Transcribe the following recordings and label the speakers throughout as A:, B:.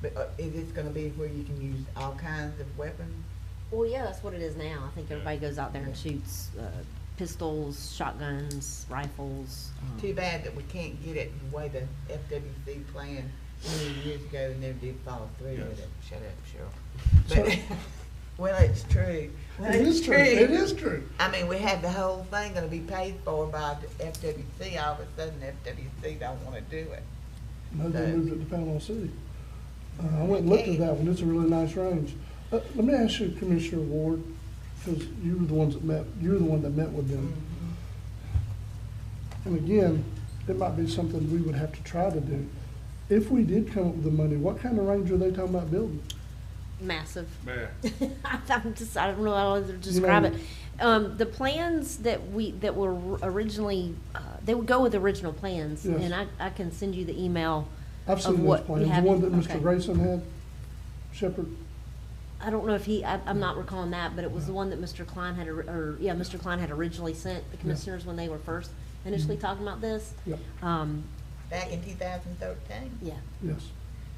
A: But uh, is this gonna be where you can use all kinds of weapons?
B: Well, yeah, that's what it is now. I think everybody goes out there and shoots uh, pistols, shotguns, rifles. um,
A: Too bad that we can't get it the way the FWC planned many years ago and never did follow through with
C: Yes.
A: it. Shut up,
D: So-
A: Cheryl. But, well, it's true. Well,
D: It is true, it is true.
A: I mean, we had the whole thing gonna be paid for by the FWC. All of a sudden, FWC don't wanna do it.
D: No, they
A: Okay.
D: moved it to Panama City. Uh, I went and looked at that one, it's a really nice range. Let, let me ask you, Commissioner Ward, because you were the ones that met, you were the one that met with them.
B: Mm-hmm.
D: And again, it might be something we would have to try to do. If we did come up with the money, what kind of range are they talking about building?
B: Massive.
C: Man,
B: I'm just, I don't know how to describe it.
D: know-
B: Um, the plans that we, that were originally, uh, they would go with the original plans.
D: Yes.
B: And I, I can send you the email.
D: I've
B: Of
D: seen those
B: what we
D: plans, the
B: have-
D: one that
B: okay.
D: Mr. Grayson had, Shepherd.
B: I don't know if he, I, I'm not recalling that, but it was the one that Mr. Klein had, or- or, yeah, Mr. Klein had originally sent the commissioners when they were first initially talking about this.
D: Yep,
B: Um,
A: Back in two thousand thirteen.
B: yeah,
D: yes.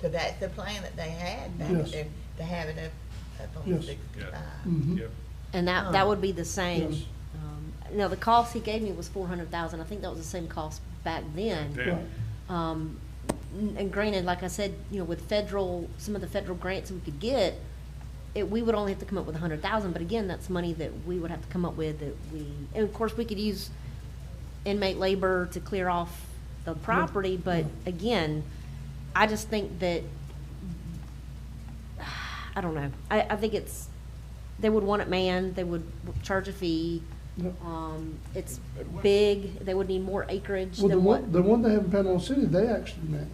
A: So that's the plan that they had back
D: Yes.
A: then, to have it up, up on
D: Yes.
A: sixty-five.
D: Mhm.
C: yep,
B: and that, that would be the
D: Yes.
B: same. Um, Now, the cost he gave me was four hundred thousand. I think that was the same cost back then.
C: damn.
D: Right.
B: Um, n- and granted, like I said, you know, with federal, some of the federal grants we could get, it, we would only have to come up with a hundred thousand, but again, that's money that we would have to come up with that we, and of course, we could use inmate labor to clear off the property, but again, I just think that, I don't know, I, I think it's, they would want it manned, they would charge a fee,
D: Yep.
B: um, it's big, they would need more acreage
D: Well, the
B: than what
D: one, the one they have in Panama City, they actually met.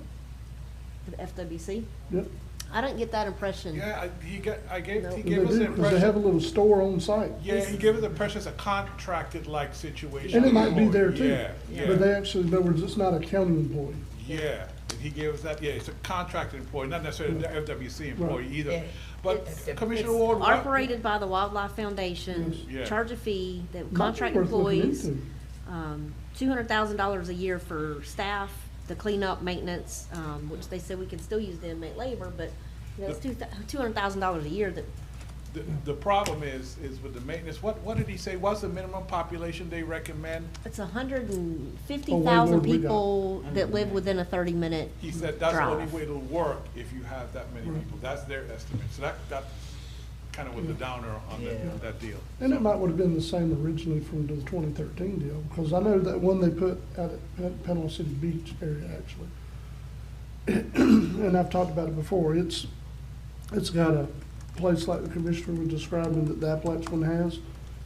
B: the FWC.
D: Yep.
B: I don't get that impression.
C: Yeah, I, he got, I gave,
B: No.
C: he
D: They
C: gave us
D: do,
C: the
D: 'cause they have a
C: impression,
D: little store on site.
C: yeah, he gave us the impression it's a contracted-like situation.
D: And it might be there too.
C: Yeah,
D: But they
C: yeah,
D: actually, in other words, it's not a county employee.
C: yeah, and he gave us that, yeah, it's a contracted employee, not necessarily the FWC employee
D: Right.
C: either.
A: Yeah.
C: But
A: It's- it's
C: Commissioner
B: It's
C: Ward, what-
B: Operated by the Wildlife Foundation,
C: Yeah.
B: charge a fee, they would
D: Might be
B: contract
D: worth looking
B: employees,
D: into.
B: um, two hundred thousand dollars a year for staff, the cleanup, maintenance, um, which they said we can still use the inmate labor, but that's two, two hundred thousand dollars a year that,
C: the, the problem is, is with the maintenance, what, what did he say, what's the minimum population they recommend?
B: it's a hundred and
D: Oh,
B: fifty
D: wait,
B: thousand
D: Lord, we got-
B: people that live within a thirty-minute
C: He said that's the only
B: drive.
C: way it'll work if you have that many people, that's their estimate, so that, that kind of was the downer on the-
A: Yeah.
C: that deal.
D: And it might would have been the same originally from the twenty thirteen deal, because I know that one they put out at Pan- Panama City Beach area actually. And I've talked about it before, it's, it's got a place like the commissioner was describing that the Appalachian one has,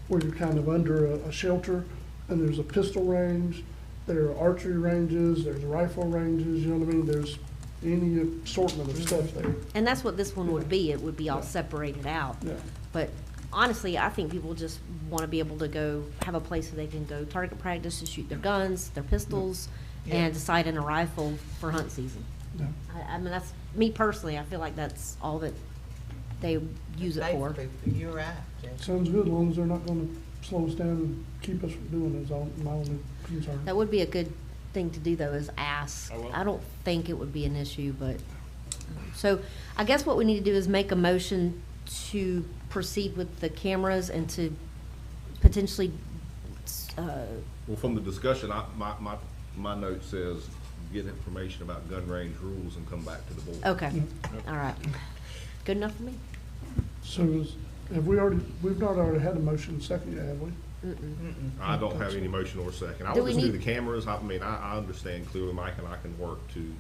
D: where you're kind of under a, a shelter, and there's a pistol range, there are archery ranges, there's rifle ranges, you know what I mean, there's any assortment of stuff there,
B: And that's what this one would be, it would be all
D: Yeah.
B: separated out.
D: yeah.
B: But honestly, I think people just want to be able to go, have a place where they can go target practice to shoot their guns, their pistols,
A: Yeah.
B: and decide on a rifle for hunt season.
D: yeah.
B: I, I mean, that's, me personally, I feel like that's all that they use it for.
A: Basically, You're right, Judge.
D: Sounds good, as long as they're not gonna slow us down and keep us from doing it, is all my only concern.
B: That would be a good thing to do though, is ask.
C: I will.
B: I don't think it would be an issue, but, so I guess what we need to do is make a motion to proceed with the cameras and to potentially, uh,
E: Well, from the discussion, I, my, my, my note says, get information about gun range rules and come back to the board.
B: Okay, all right. Good enough for me?
D: So is, have we already, we've not already had a motion second, yet, have we?
E: I don't have any motion or second. I
B: Do
E: will
B: we
E: just do
B: need-
E: the cameras. I mean, I, I understand clearly, Mike, and I can work to,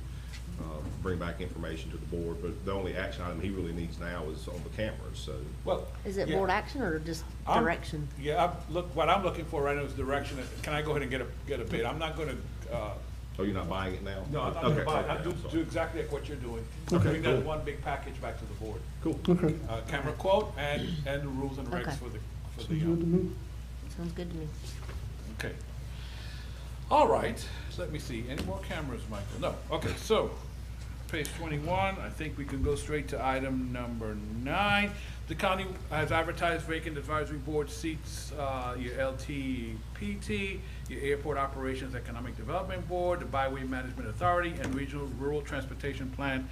E: uh, bring back information to the board, but the only action item he really needs now is on the cameras, so.
C: Well.
B: Is it
C: yeah.
B: board action or just
C: I'm-
B: direction?
C: Yeah, I'm, look, what I'm looking for right now is direction, can I go ahead and get a, get a bid? I'm not gonna, uh,
E: Oh, you're not buying it now?
C: no, I'm not gonna
E: Okay,
C: buy, it.
E: okay,
C: I'll do,
E: I'm sorry.
C: do exactly like what you're doing.
E: Okay,
C: Bring that
E: cool.
C: one big package back to the board.
E: Cool.
D: Okay,
C: Uh, camera quote and, and the rules and
B: Okay.
C: regs for the, for
D: sounds good
C: the,
D: to me.
B: Sounds good to me.
C: uh, okay. All right, let me see, any more cameras, Michael? No, okay, so, page twenty-one, I think we can go straight to item number nine. The county has advertised vacant advisory board seats, uh, your LTPT, your Airport Operations Economic Development Board, the Byway Management Authority, and Regional Rural Transportation Plan